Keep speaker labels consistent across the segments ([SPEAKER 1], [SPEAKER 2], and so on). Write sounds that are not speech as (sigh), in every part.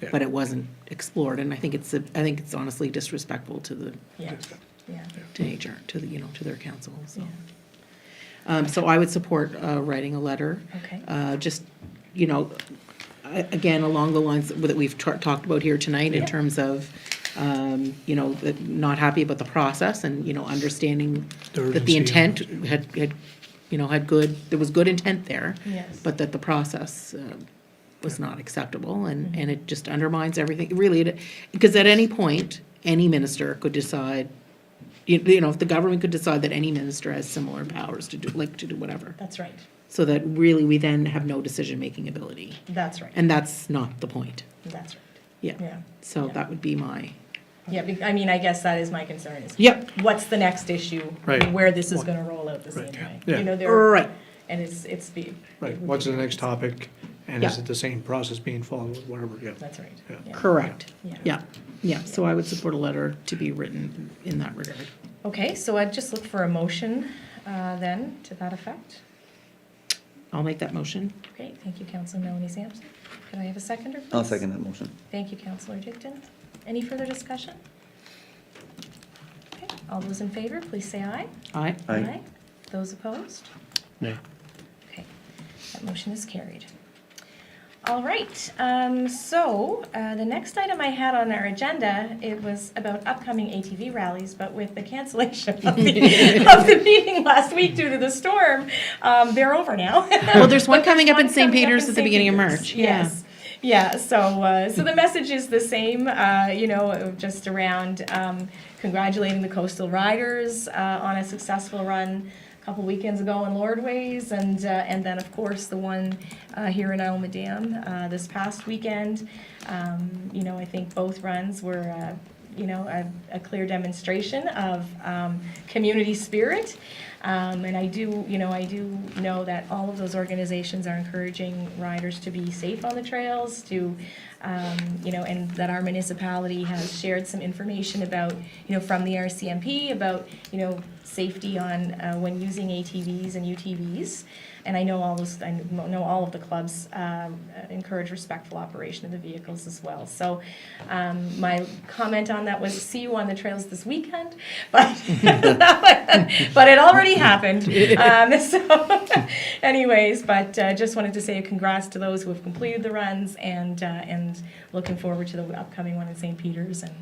[SPEAKER 1] Yeah.
[SPEAKER 2] but it wasn't explored, and I think it's, a- I think it's honestly disrespectful to the,
[SPEAKER 3] Yeah, yeah.
[SPEAKER 2] to HR, to the, you know, to their council, so. Um, so I would support, uh, writing a letter.
[SPEAKER 3] Okay.
[SPEAKER 2] Uh, just, you know, a- again, along the lines that we've tar- talked about here tonight in terms of, um, you know, that not happy about the process and, you know, understanding
[SPEAKER 1] The
[SPEAKER 2] that the
[SPEAKER 1] urgency.
[SPEAKER 2] intent had, had, you know, had good, there was good intent there.
[SPEAKER 3] Yes.
[SPEAKER 2] But that the process, um, was not acceptable
[SPEAKER 3] Mm-hmm.
[SPEAKER 2] and, and it just undermines everything, really, it- because at any point, any minister could decide, you, you know, if the government could decide that any minister has similar powers to do, like, to do whatever.
[SPEAKER 3] That's right,
[SPEAKER 2] So that really we then have no decision-making ability.
[SPEAKER 3] that's right,
[SPEAKER 2] And that's not the point.
[SPEAKER 3] that's right.
[SPEAKER 2] Yeah.
[SPEAKER 3] Yeah.
[SPEAKER 2] So
[SPEAKER 3] Yeah.
[SPEAKER 2] that would be my,
[SPEAKER 3] Yeah, be- I mean, I guess that is my concern is.
[SPEAKER 2] Yep.
[SPEAKER 3] What's the next issue?
[SPEAKER 1] Right.
[SPEAKER 3] Where this is gonna roll out the same
[SPEAKER 1] Right, yeah.
[SPEAKER 3] way.
[SPEAKER 1] Yeah. Er.
[SPEAKER 3] You know, there,
[SPEAKER 2] right,
[SPEAKER 3] and it's, it's the.
[SPEAKER 1] Right, what's the next topic, and is
[SPEAKER 2] Yeah.
[SPEAKER 1] it the same process being followed, whatever, yeah.
[SPEAKER 3] That's right.
[SPEAKER 1] Yeah.
[SPEAKER 3] yeah.
[SPEAKER 2] correct.
[SPEAKER 3] Yeah.
[SPEAKER 2] Yeah, yeah. So I would support a letter to be written in that regard.
[SPEAKER 3] Okay, so I'd just look for a motion uh, then to that effect.
[SPEAKER 2] I'll make that motion.
[SPEAKER 3] Great, thank you, Councillor Melanie Sampson. Could I have a seconder, please?
[SPEAKER 4] I'll second that motion.
[SPEAKER 3] Thank you, Councillor Dickton. Any further discussion? Okay, all those in favor, please say aye.
[SPEAKER 2] Aye.
[SPEAKER 3] Oh,
[SPEAKER 4] Aye.
[SPEAKER 3] Those opposed?
[SPEAKER 1] Nay.
[SPEAKER 3] Okay, that motion is carried. All right, um, so, uh, the next item I had on our agenda, it was about upcoming ATV rallies, but with the cancellation of the, of the meeting last week due to the storm, um, they're over now. (laughs)
[SPEAKER 2] Well, there's one
[SPEAKER 3] But there's
[SPEAKER 2] coming up in
[SPEAKER 3] one
[SPEAKER 2] St.
[SPEAKER 3] coming up
[SPEAKER 2] Peters
[SPEAKER 3] in
[SPEAKER 2] at the
[SPEAKER 3] St.
[SPEAKER 2] beginning of
[SPEAKER 3] Peters,
[SPEAKER 2] March. Yeah.
[SPEAKER 3] Yes. Yeah, so, uh, so the message is the same, uh, you know, just around um, congratulating the coastal riders uh, on a successful run a couple weekends ago in Lordways, and, uh, and then, of course, the one uh, here in Alma Dam uh, this past weekend. Um, You know, I think both runs were, uh, you know, a, a clear demonstration of um, community spirit. Um, and I do, you know, I do know that all of those organizations are encouraging riders to be safe on the trails, to, um, you know, and that our municipality has shared some information about, you know, from the RCMP about, you know, safety on uh, when using ATVs and UTVs. And I know all those, I know all of the clubs um, encourage respectful operation of the vehicles as well. So um, my comment on that was see you on the trails this weekend, (laughs) but (laughs) but it already happened. Um, (laughs) so anyways, but uh, just wanted to say a congrats to those who have completed the runs and uh, and looking forward to the upcoming one in St. Peter's and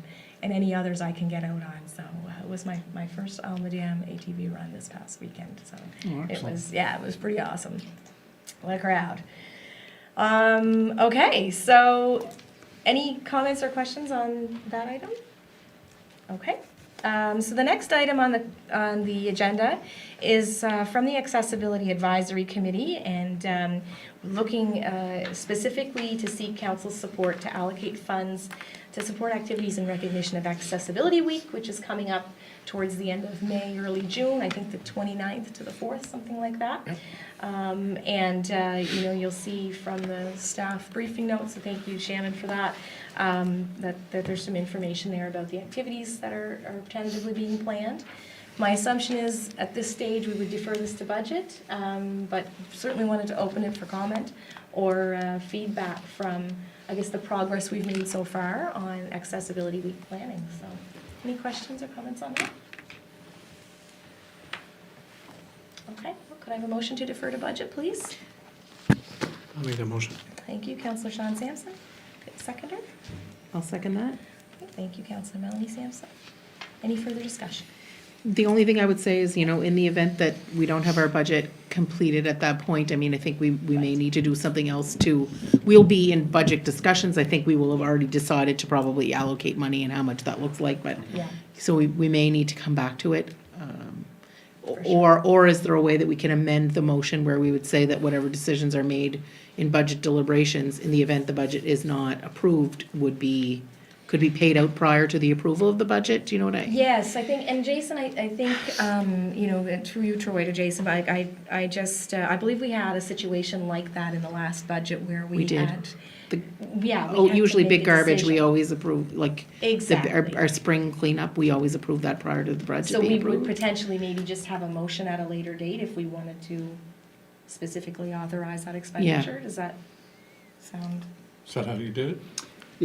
[SPEAKER 3] and any others I can get out on. So uh, it was my, my first Alma Dam ATV run this past weekend. So it was yeah, it was pretty awesome. What a crowd. Um, okay, so any comments or questions on that item? Okay. Um, so the next item on the on the agenda is uh, from the Accessibility Advisory Committee, and um, looking uh, specifically to seek council support to allocate funds to support activities in recognition of Accessibility Week, which is coming up towards the end of May, early June. I think the 29th to the 4th, something like that. Um, and, uh, you know, you'll see from the staff briefing notes, so thank you Shannon for that, um, that, that there's some information there about the activities that are, are tentatively being planned. My assumption is, at this stage, we would defer this to budget, um, but certainly wanted to open it for comment or, uh, feedback from, I guess, the progress we've made so far on accessibility week planning, so. Any questions or comments on that? Okay, well, could I have a motion to defer to budget, please?
[SPEAKER 1] I'll make that motion.
[SPEAKER 3] Thank you, Councillor Sean Sampson. Seconder.
[SPEAKER 2] I'll second that.
[SPEAKER 3] Thank you, Councillor Melanie Sampson. Any further discussion?
[SPEAKER 2] The only thing I would say is, you know, in the event that we don't have our budget completed at that point, I mean, I think we, we may need to do something else to, we'll be in budget discussions. I think we will have already decided to probably allocate money and how much that looks like, but,
[SPEAKER 3] Yeah.
[SPEAKER 2] so we, we may need to come back to it. um,
[SPEAKER 3] For
[SPEAKER 2] Or, or is there a way that we can amend the motion where we would say that whatever decisions are made in budget deliberations, in the event the budget is not approved, would be, could be paid out prior to the approval of the budget? Do you know what I?
[SPEAKER 3] Yes, I think, and Jason, I, I think, um, you know, that through you, Troy, to Jason, but I, I I just, uh, I believe we had a situation like that in the last budget where we
[SPEAKER 2] We did.
[SPEAKER 3] had.
[SPEAKER 2] The-
[SPEAKER 3] Yeah. we
[SPEAKER 2] Oh,
[SPEAKER 3] had to
[SPEAKER 2] usually
[SPEAKER 3] make a
[SPEAKER 2] big garbage, we
[SPEAKER 3] decision.
[SPEAKER 2] always approve, like. the-
[SPEAKER 3] Exactly.
[SPEAKER 2] Our, our spring cleanup, we always approve that prior to the budget
[SPEAKER 3] So we
[SPEAKER 2] being
[SPEAKER 3] would
[SPEAKER 2] approved.
[SPEAKER 3] potentially maybe just have a motion at a later date if we wanted to specifically authorize that expenditure? Does that sound?
[SPEAKER 5] Is that how you did it?